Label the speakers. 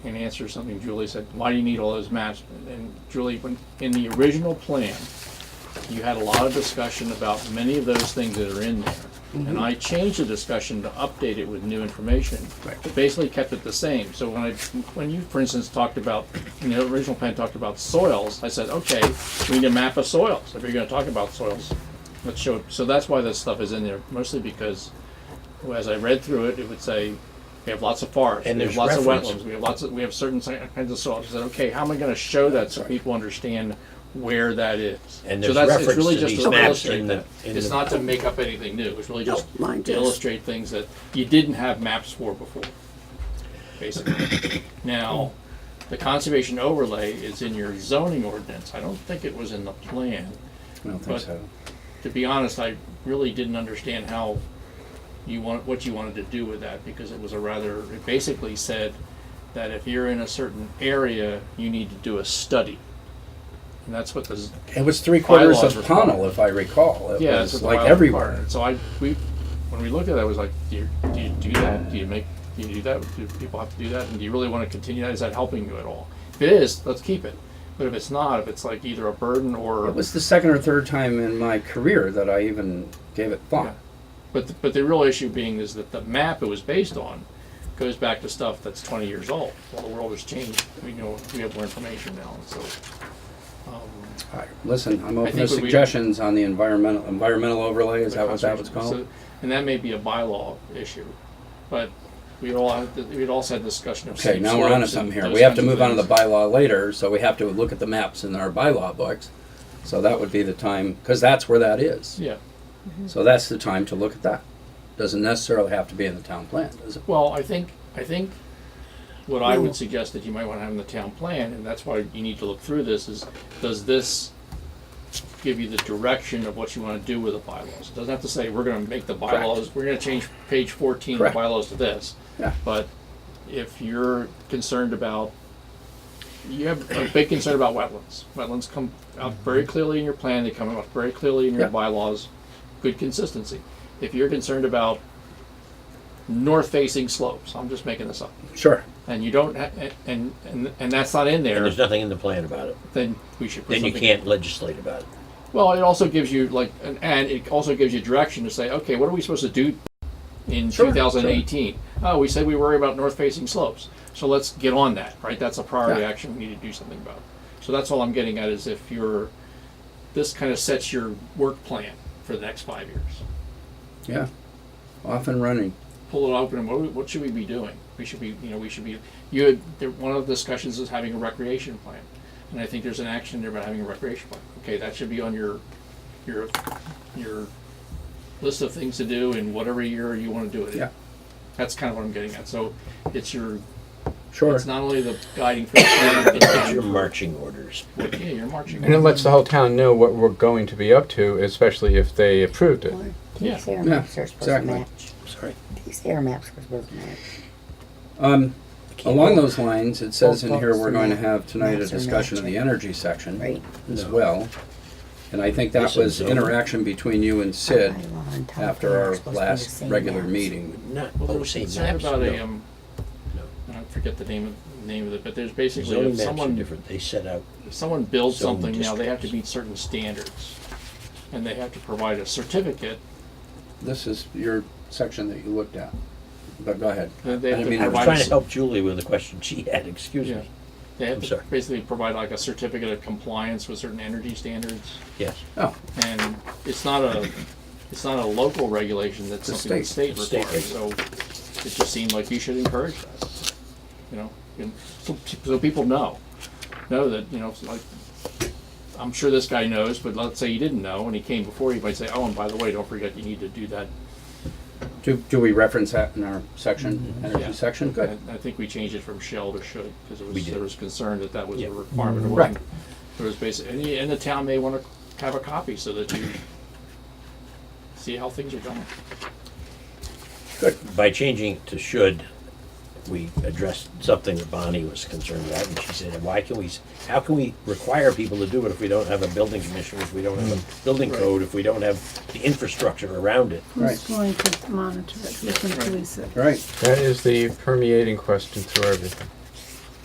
Speaker 1: and answer something Julie said, why do you need all those maps? And Julie, when, in the original plan, you had a lot of discussion about many of those things that are in there.
Speaker 2: Mm-hmm.
Speaker 1: And I changed the discussion to update it with new information. But Basically kept it the same. So when I, when you, for instance, talked about, in the original plan, talked about soils, I said, okay, we need a map of soils. If you're gonna talk about soils, let's show, so that's why this stuff is in there, mostly because well, as I read through it, it would say, we have lots of forests,
Speaker 2: And
Speaker 1: we have
Speaker 2: there's
Speaker 1: lots of
Speaker 2: reference.
Speaker 1: wetlands, we have lots of, we have certain si- kinds of soils. I said, okay, how am I gonna show that so people understand where that is?
Speaker 2: And
Speaker 1: So
Speaker 2: there's
Speaker 1: that's, it's
Speaker 2: reference
Speaker 1: really
Speaker 2: to
Speaker 1: just
Speaker 2: these
Speaker 1: to
Speaker 2: maps
Speaker 1: illustrate
Speaker 2: in the-
Speaker 1: that.
Speaker 2: in
Speaker 1: It's
Speaker 2: the-
Speaker 1: not to make up anything new, it's really
Speaker 3: No,
Speaker 1: just
Speaker 3: mine
Speaker 1: to
Speaker 3: does.
Speaker 1: illustrate things that you didn't have maps for before, basically.
Speaker 3: Oh.
Speaker 1: Now, the conservation overlay is in your zoning ordinance. I don't think it was in the plan
Speaker 4: I don't
Speaker 1: But-
Speaker 4: think so.
Speaker 1: to be honest, I really didn't understand how you want, what you wanted to do with that, because it was a rather, it basically said that if you're in a certain area, you need to do a study. And that's what the,
Speaker 4: It was three quarters
Speaker 1: Bylaws
Speaker 4: of
Speaker 1: require-
Speaker 4: Pownell, if I recall. It
Speaker 1: yeah, that's
Speaker 4: was
Speaker 1: what the
Speaker 4: like
Speaker 1: bylaw
Speaker 4: everywhere.
Speaker 1: required. So I, we, when we looked at that, I was like, do you, do you do that? Do you make, do you do that? Do people have to do that? And do you really want to continue that? Is that helping you at all? If it is, let's keep it. But if it's not, if it's like either a burden or.
Speaker 4: It was the second or third time in my career that I even gave it
Speaker 1: Yeah.
Speaker 4: thought.
Speaker 1: But, the- but the real issue being is that the map it was based on goes back to stuff that's twenty years old. Well, the world has changed, we know, we have more information now, and so.
Speaker 4: All right, Listen, I'm open
Speaker 1: think
Speaker 4: to
Speaker 1: what we-
Speaker 4: suggestions on the environmental, environmental overlay, is that what that was
Speaker 1: So-
Speaker 4: called?
Speaker 1: And that may be a bylaw issue, but we all, had- we'd also had discussion of.
Speaker 4: Okay,
Speaker 1: steep
Speaker 4: now we're onto
Speaker 1: slopes and
Speaker 4: something here.
Speaker 1: those
Speaker 4: We have
Speaker 1: kinds
Speaker 4: to
Speaker 1: of
Speaker 4: move on to the
Speaker 1: things.
Speaker 4: bylaw later, so we have to look at the maps in our bylaw books. So that would be the time, because that's where that is.
Speaker 1: Yeah,
Speaker 4: So that's the time to look at that. Doesn't necessarily have to be in the town plan, does it?
Speaker 1: well, I think, I think what I would suggest that you might wanna have in the town plan, and that's why you need to look through this, is does this give you the direction of what you wanna do with the bylaws? It Doesn't have to say, we're gonna make the bylaws, we're gonna change page fourteen of the
Speaker 4: Correct.
Speaker 1: bylaws to this.
Speaker 4: Yeah.
Speaker 1: But if you're concerned about, you have a big concern about wetlands. Wetlands come out very clearly in your plan, they come out very clearly in your
Speaker 4: Yeah.
Speaker 1: bylaws, good consistency. If you're concerned about north-facing slopes, I'm just making this up,
Speaker 4: Sure.
Speaker 1: and you don't, ha- and, and, and that's not in
Speaker 2: And
Speaker 1: there,
Speaker 2: there's nothing in the plan about it.
Speaker 1: then we should put
Speaker 2: Then you
Speaker 1: something.
Speaker 2: can't legislate about it.
Speaker 1: Well, it also gives you like, an, and it also gives you direction to say, okay, what are we supposed to do in
Speaker 4: Sure,
Speaker 1: 2018? Oh, we said we worry about north-facing slopes, so let's get on that, right? That's a priority
Speaker 4: Yeah.
Speaker 1: action we need to do something about. So that's all I'm getting at is if you're, this kind of sets your work plan for the next five years.
Speaker 4: Yeah. Off and running.
Speaker 1: Pull it open, and what, do we- what should we be doing? We should be, you know, we should be. You had there, one of the discussions is having a recreation plan, and I think there's an action there about having a recreation plan. Okay, that should be on your your your list of things to do in whatever year you want to do it. in.
Speaker 4: Yeah.
Speaker 1: That's kind of what I'm getting at. So it's your
Speaker 4: Sure.
Speaker 1: it's not only the guiding principle, but
Speaker 2: It's your
Speaker 1: it's
Speaker 2: marching orders.
Speaker 1: your, yeah, your marching.
Speaker 5: And it lets the whole town know what we're going to be up to, especially if they approved it.
Speaker 1: Yeah.
Speaker 3: These air maps are supposed to
Speaker 4: exactly.
Speaker 3: match.
Speaker 4: Sorry.
Speaker 3: These air maps are supposed to match.
Speaker 4: Um, along those lines, it says in here
Speaker 3: Both
Speaker 4: we're
Speaker 3: books
Speaker 4: going to
Speaker 3: and
Speaker 4: have tonight a
Speaker 3: maps are
Speaker 4: discussion of the
Speaker 3: matching.
Speaker 4: energy section
Speaker 3: Right.
Speaker 4: as well. And I think that
Speaker 2: This is
Speaker 4: was
Speaker 2: zoning.
Speaker 4: interaction between you and Sid
Speaker 3: Bylaw on top of it,
Speaker 4: after
Speaker 3: they're
Speaker 4: our
Speaker 3: supposed to be the
Speaker 4: last
Speaker 3: same
Speaker 4: regular
Speaker 3: maps.
Speaker 4: meeting.
Speaker 2: Not,
Speaker 1: Well, there
Speaker 2: oh,
Speaker 1: was
Speaker 2: say
Speaker 1: concern
Speaker 2: maps,
Speaker 1: about a
Speaker 2: no.
Speaker 1: um,
Speaker 2: No.
Speaker 1: I don't forget the name of name of it, but there's basically
Speaker 2: Zoning
Speaker 1: if
Speaker 2: maps are
Speaker 1: someone
Speaker 2: different. They set out,
Speaker 1: If someone builds
Speaker 2: Zone
Speaker 1: something now, they have to
Speaker 2: districts.
Speaker 1: meet certain standards. And they have to provide a certificate,
Speaker 4: This is your section that you looked at, but go ahead.
Speaker 1: Uh, they
Speaker 4: I
Speaker 1: have to
Speaker 4: mean,
Speaker 2: I was
Speaker 1: provide-
Speaker 2: trying to help Julie with a question she had, excuse
Speaker 1: Yeah.
Speaker 2: me.
Speaker 1: they have
Speaker 2: I'm
Speaker 1: to
Speaker 2: sorry.
Speaker 1: basically provide like a certificate of compliance with certain energy standards.
Speaker 2: Yes.
Speaker 4: Oh,
Speaker 1: And it's not a, it's not a local regulation, that's
Speaker 4: It's a
Speaker 1: something the state
Speaker 2: state- state
Speaker 1: requires, so it just seemed like you should encourage that, you know? And so, so people know, know that, you know, it's like, I'm sure this guy knows, but let's say he didn't know and he came before, he might say, oh, and by the way, don't forget, you need to do that
Speaker 4: do, do we reference that in our section,
Speaker 1: Yeah.
Speaker 4: energy section? Good.
Speaker 1: I I think we changed it from shall to should, because it
Speaker 2: We
Speaker 1: was,
Speaker 2: did.
Speaker 1: there was concern that that was
Speaker 2: Yeah.
Speaker 1: a requirement. It
Speaker 4: Right.
Speaker 1: wasn't- There was basically, and the, and the town may want to have a copy so that you see how things are going.
Speaker 2: By changing it to should, we addressed something that Bonnie was concerned about, and she said, why can we, s- how can we require people to do it if we don't have a building commissioner, if we don't have a building
Speaker 1: Mm. Right.
Speaker 2: code, if we don't have the infrastructure around it?
Speaker 6: Who's going to monitor it, who can police it?
Speaker 4: All right,
Speaker 5: That is the permeating question through everything.